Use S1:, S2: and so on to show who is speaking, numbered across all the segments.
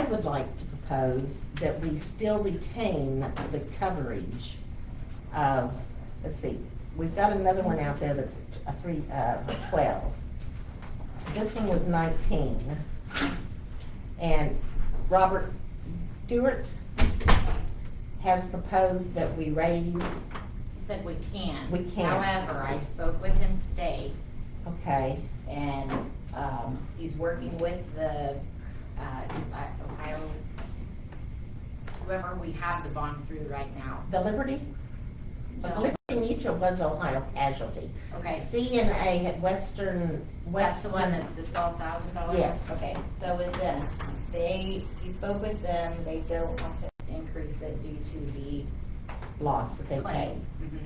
S1: would like to propose that we still retain the coverage of, let's see, we've got another one out there that's a three, uh, twelve. This one was nineteen. And Robert Stewart has proposed that we raise,
S2: He said we can.
S1: We can.
S2: However, I spoke with him today
S1: okay,
S2: and, um, he's working with the, uh, Ohio, whoever we have the bond through right now.
S1: the Liberty?
S2: No,
S1: Liberty Mutual was Ohio casualty.
S2: okay,
S1: CNA had Western,
S2: that's
S1: West.
S2: the one that's the twelve thousand dollars?
S1: Yes.
S2: Okay, so with them, they, he spoke with them, they don't want to increase it due to the
S1: Loss that they paid.
S2: claim. Mhm.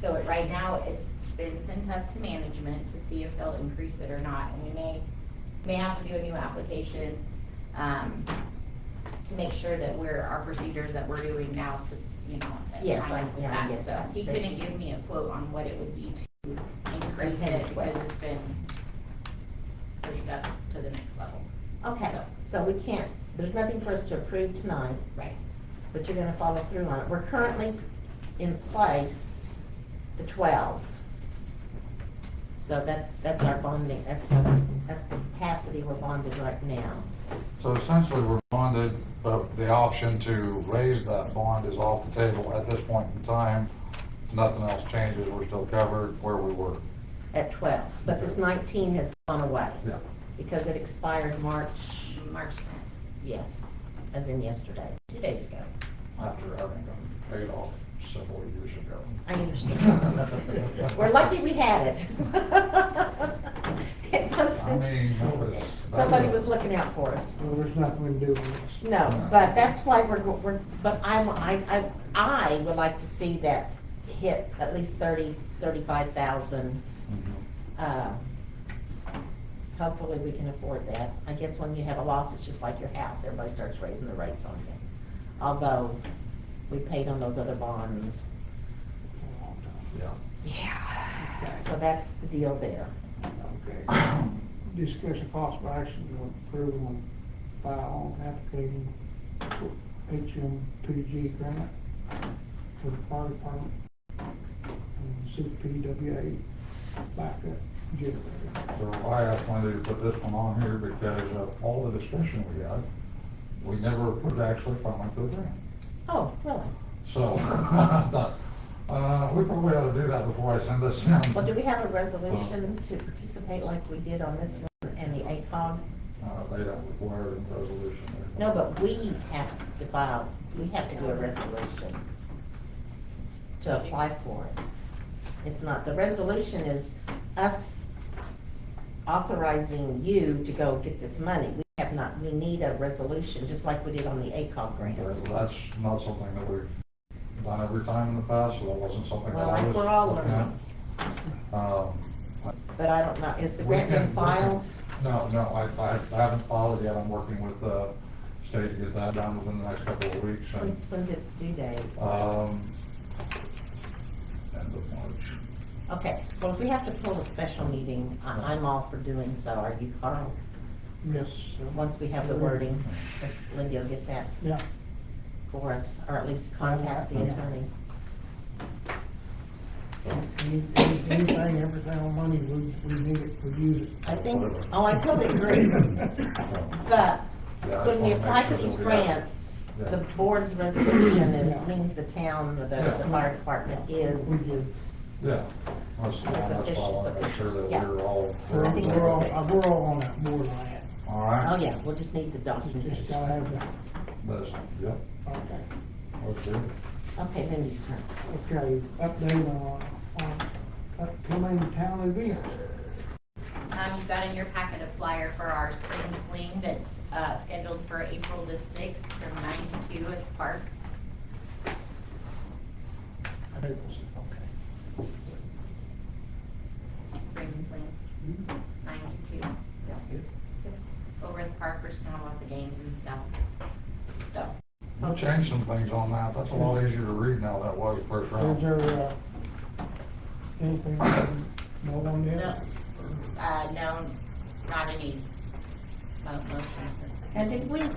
S2: So it- right now, it's been sent up to management to see if they'll increase it or not, and we may, may have to do a new application um, to make sure that we're, our procedures that we're doing now, so, you know. that
S1: Yes,
S2: line up with
S1: I- yeah, I
S2: that.
S1: get
S2: So
S1: that.
S2: he couldn't give me a quote on what it would be to increase
S1: Okay.
S2: it, because it's been pushed up to the next level.
S1: Okay, so we can't, there's nothing for us to approve tonight,
S2: Right.
S1: but you're gonna follow through on it. We're currently in place, the twelve. So that's, that's our bonding, that's the, that's the capacity we're bonded right now.
S3: So essentially, we're bonded, but the option to raise that bond is off the table at this point in time. Nothing else changes, we're still covered where we were.
S1: At twelve, but this nineteen has gone away.
S3: Yeah.
S1: Because it expired March,
S2: March 10th.
S1: yes, as in yesterday, two days ago.
S3: After having them paid off several years ago.
S1: I understand. We're lucky we had it. It
S3: I
S1: wasn't,
S3: mean, that was.
S1: somebody was looking out for us.
S4: Well, there's nothing we can do on this.
S1: No, but that's why we're, we're, but I'm, I, I, I would like to see that hit at least thirty, thirty-five thousand.
S3: Mhm.
S1: Uh, Hopefully, we can afford that. I guess when you have a loss, it's just like your house, everybody starts raising the rates on it. Although, we paid on those other bonds.
S3: Yeah.
S1: Yeah. So that's the deal there.
S4: Okay. Discuss a possible action on approval and file application for HMPG grant for the fire department and CPWA backup generator.
S3: So I asked Wendy to put this one on here because of all the discussion we had, we never put actually filing for the grant.
S1: Oh, really?
S3: So, I thought, uh, we probably ought to do that before I send this in.
S1: Well, do we have a resolution to participate like we did on this one and the ACOG?
S3: Uh, they don't require a resolution.
S1: No, but we have to file, we have to do a resolution to apply for it. It's not, the resolution is us authorizing you to go get this money. We have not, we need a resolution, just like we did on the ACOG grant.
S3: But That's not something that we've done every time in the past, so that wasn't something that
S1: Well,
S3: I
S1: like
S3: was.
S1: we're all
S3: looking at.
S1: learning,
S3: Um,
S1: but I don't know, is the
S3: we
S1: grant
S3: can-
S1: been filed?
S3: No, no, I, I I haven't filed it yet. I'm working with, uh, state to get that done within the next couple of weeks and,
S1: When's, when's its due date?
S3: um, end of March.
S1: Okay, well, if we have to pull a special meeting, I- I'm all for doing so, are you, Carl?
S4: Yes, sir.
S1: Once we have the wording, Lindy will get that
S4: yeah,
S1: for us, or at least contact the attorney.
S4: any- any- anything, everything on money, we, we need it, we use it.
S1: I think, oh, I totally agree, but
S3: Yeah, I
S1: when we
S3: just wanna make
S1: apply for
S3: sure that
S1: these
S3: we got-
S1: grants, the
S3: Yeah.
S1: board's resolution is,
S4: Yeah.
S1: means the town or the, the fire department is,
S4: We do.
S3: Yeah, that's, that's why I want to make sure that
S1: Yeah.
S3: we're all.
S1: I think that's
S4: We're all,
S1: fair.
S4: we're all on that board on that.
S3: All
S1: oh,
S3: right,
S1: yeah, we'll just need the
S4: You just
S1: documentation.
S4: gotta have that.
S3: that's, yep,
S4: Okay.
S3: okay.
S1: Okay, Lindy's turn.
S4: Okay, update on, on upcoming town events.
S2: Um, you've got in your packet a flyer for our spring fling that's, uh, scheduled for April the sixth from nine to two at the park.
S4: Okay.
S2: Spring fling, nine to two. Over at the park, we're just gonna watch the games and stuff. So,
S3: I'll change some things on that. That's a lot easier to read now than it was first
S4: Is
S3: round.
S4: there, uh, anything, no one
S2: no,
S4: yet?
S2: uh, no, not any mo- motions.
S1: And did we,